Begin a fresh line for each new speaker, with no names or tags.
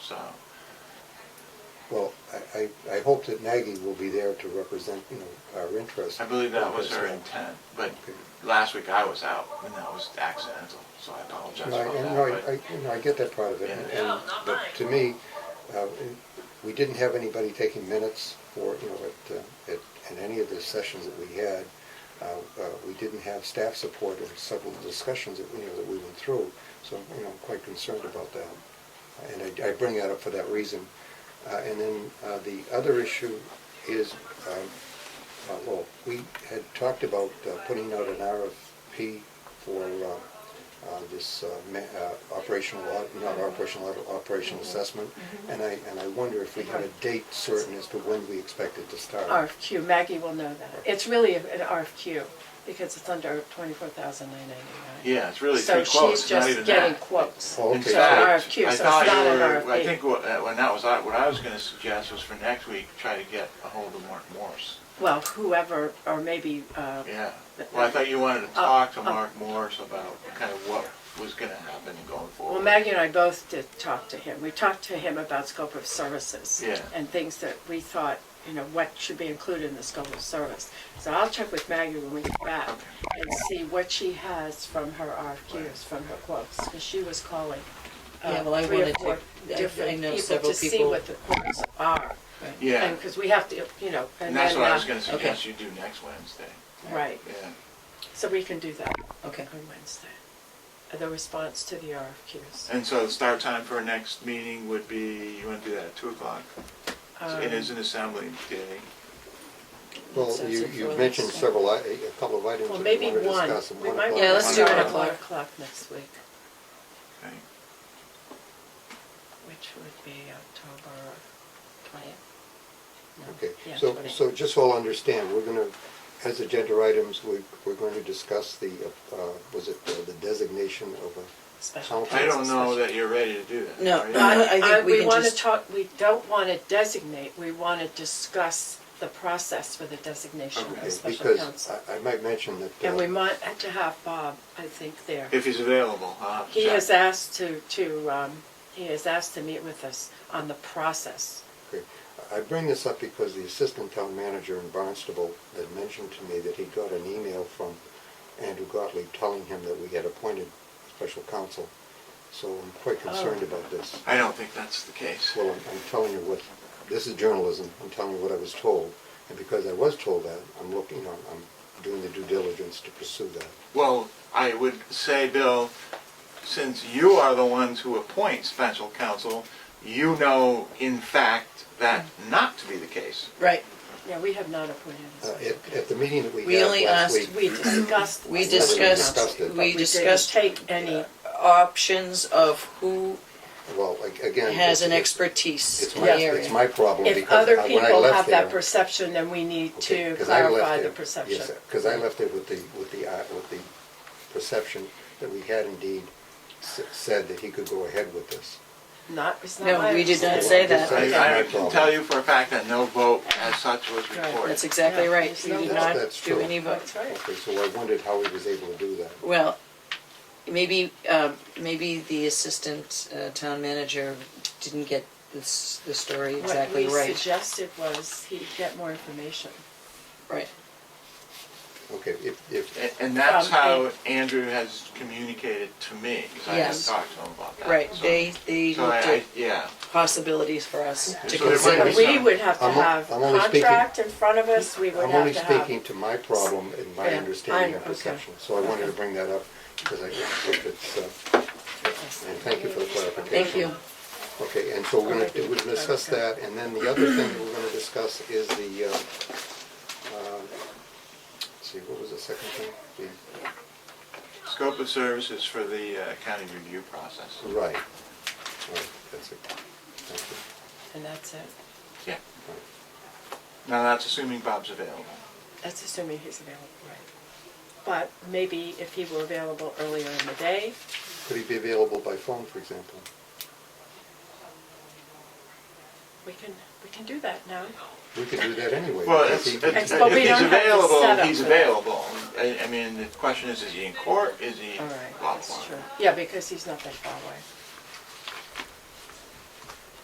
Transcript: so.
Well, I, I, I hope that Maggie will be there to represent, you know, our interests.
I believe that was her
her
intent, but
Okay.
last week I was out, and that was accidental, so I apologize
No, I,
about
and
that.
no, I,
but-
I- you know, I get that part of it,
Yeah.
and,
Yeah,
and-
not
but
mine.
to me, uh, we didn't have anybody taking minutes for, you know, at, uh, at, in any of the sessions that we had. Uh, uh, we didn't have staff support in several discussions that, you know, that we went through, so, you know, I'm quite concerned about that. And I, I bring that up for that reason. Uh, and then, uh, the other issue is, um, uh, well, we had talked about uh, putting out an RFP for, uh, uh, this uh, ma- uh, operational, au- not operational, audit,
Mm-hmm.
operational assessment. And I, and I wonder if we had a date certain as to when we expect it to start.
RFQ, Maggie will know that. It's really an RFQ, because it's under twenty-four thousand nine ninety-nine.
Yeah, it's really three quotes, not
So she's
even
just getting
that.
quotes.
Oh,
In
okay. So
fact,
RFQ,
I
so
thought
it's
you
not an
were- I
RFP.
think what, uh, when that was, out- what I was gonna suggest was for next week, try to get a hold of Mark Morse.
Well, whoever, or maybe, uh,
Yeah, well, I thought you wanted to
Uh,
talk to
uh.
Mark Morse about kind of what was gonna happen going forward.
well, Maggie and I both did talk to him. We talked to him about scope of services.
Yeah.
And things that we thought, you know, what should be included in the scope of service. So I'll check with Maggie when we get back
Okay.
and see what she has from her RFQs, from her quotes, because she was calling uh,
Yeah, well, I
three or
wanted to-
four
I- I
different
know
people
several
to see
people-
what the quotes are.
Yeah,
And, because we have to, you know, and
and that's
then,
what I
uh,
was gonna suggest
okay.
you do next Wednesday,
Right,
yeah.
so we can do that
Okay.
on Wednesday, Uh, the response to the RFQs.
And so the start time for our next meeting would be, you want to do that at two o'clock? It is an assembly day.
Well,
So
you,
it's
you
for
mentioned
next-
several, i- a couple of items
Well,
that
maybe
we wanted to
one,
discuss. and
we
one
might
o'clock
Yeah,
is
let's do
fine.
one
one
o'clock.
o'clock next week,
Okay.
which would be October twentieth.
Okay,
Yeah,
so,
twenty.
so just so I'll understand, we're gonna, as agenda items, we, we're going to discuss the, uh, was it uh, the designation of a,
Special.
How-
I don't know
counsel.
that you're ready to do that.
No,
are you?
I- I think
I-
we can
wanna
just-
talk, we don't want to designate, we want to discuss the process for the designation of
Okay,
the
okay,
special
because
counsel.
I, I might mention that.
And
uh,
we might have to have Bob, I think, there.
If he's available, huh?
He is asked to, to, um, he is asked to meet with us on the process.
Okay. I bring this up because the assistant town manager in Barnstable had mentioned to me that he got an email from Andrew Gottlieb telling him that we had appointed special counsel. So I'm quite concerned
Oh.
about this.
I don't think that's the case.
Well, I'm, I'm telling you what, this is journalism, I'm telling you what I was told. And because I was told that, I'm looking, you know, I'm doing the due diligence to pursue that.
Well, I would say, Bill, since you are the ones who appoint special counsel, you know in fact that not to be the case.
Right.
Yeah, we have not appointed
Uh,
him.
at, at the meeting that we
We
had
only
last
asked-
week.
We discussed.
We
Yeah, we
discussed,
discussed it.
we
We
discussed
didn't take any,
options of who
Well, like, again. it's-
has an
it's-
expertise
It's
in
my,
the
it's
area.
my problem because
if other
I- when I
people
left
have that
there-
perception, then we need to
Because I left
clarify the
there-
perception.
Yes, because I left it with the, with the, uh, with the perception that we had indeed s- said that he could go ahead with this.
Not, it's not
No,
my
we did not
understanding.
say
That's
that.
right.
I I can tell you for a fact that no vote as such was
Right,
recorded.
That's exactly
Yeah,
right.
there's
We
no-
did
That's-
not
that's
do
true.
any vote.
That's right.
Okay, so I wondered how he was able to do that.
Well, maybe, um, maybe the assistant uh, town manager didn't get this, the story exactly
What we
right.
suggested was he get more information.
Right.
Okay, if, if,
A- And that's
Um,
how Andrew has communicated to me, because I have
Yes.
talked to him about that.
Right,
So-
they, they
So I,
looked at
I- yeah,
possibilities for us
So
to
there might be
consider.
But we
some-
would have to
I'm o-
have
I'm only speaking-
contract in front of us, we would
I'm
have
only
to have.
speaking to my problem and my
Yeah,
understanding
I-
of
okay.
perception. So I wanted to bring that up because I think it's, uh, and thank you for the clarification.
Thank you.
Okay, and so we're gonna, we'll discuss that, and then the other thing we're gonna discuss is the, uh, uh, let's see, what was the second thing? The-
scope of services for the uh, county review process.
Right, right, that's it. Thank you.
And that's it.
Yeah. Now, that's assuming Bob's available.
That's assuming he's available, right? But maybe if he were available earlier in the day,
Could he be available by phone, for example?
we can, we can do that now.
We could do that anyway.
Well,
because
it's,
he-
it's-
But we
if he's
don't have the
available,
setup
he's
for that.
available. I, I mean, the question is, is he in court, is he
All right,
off
that's
line?
true. Yeah, because he's not that far away.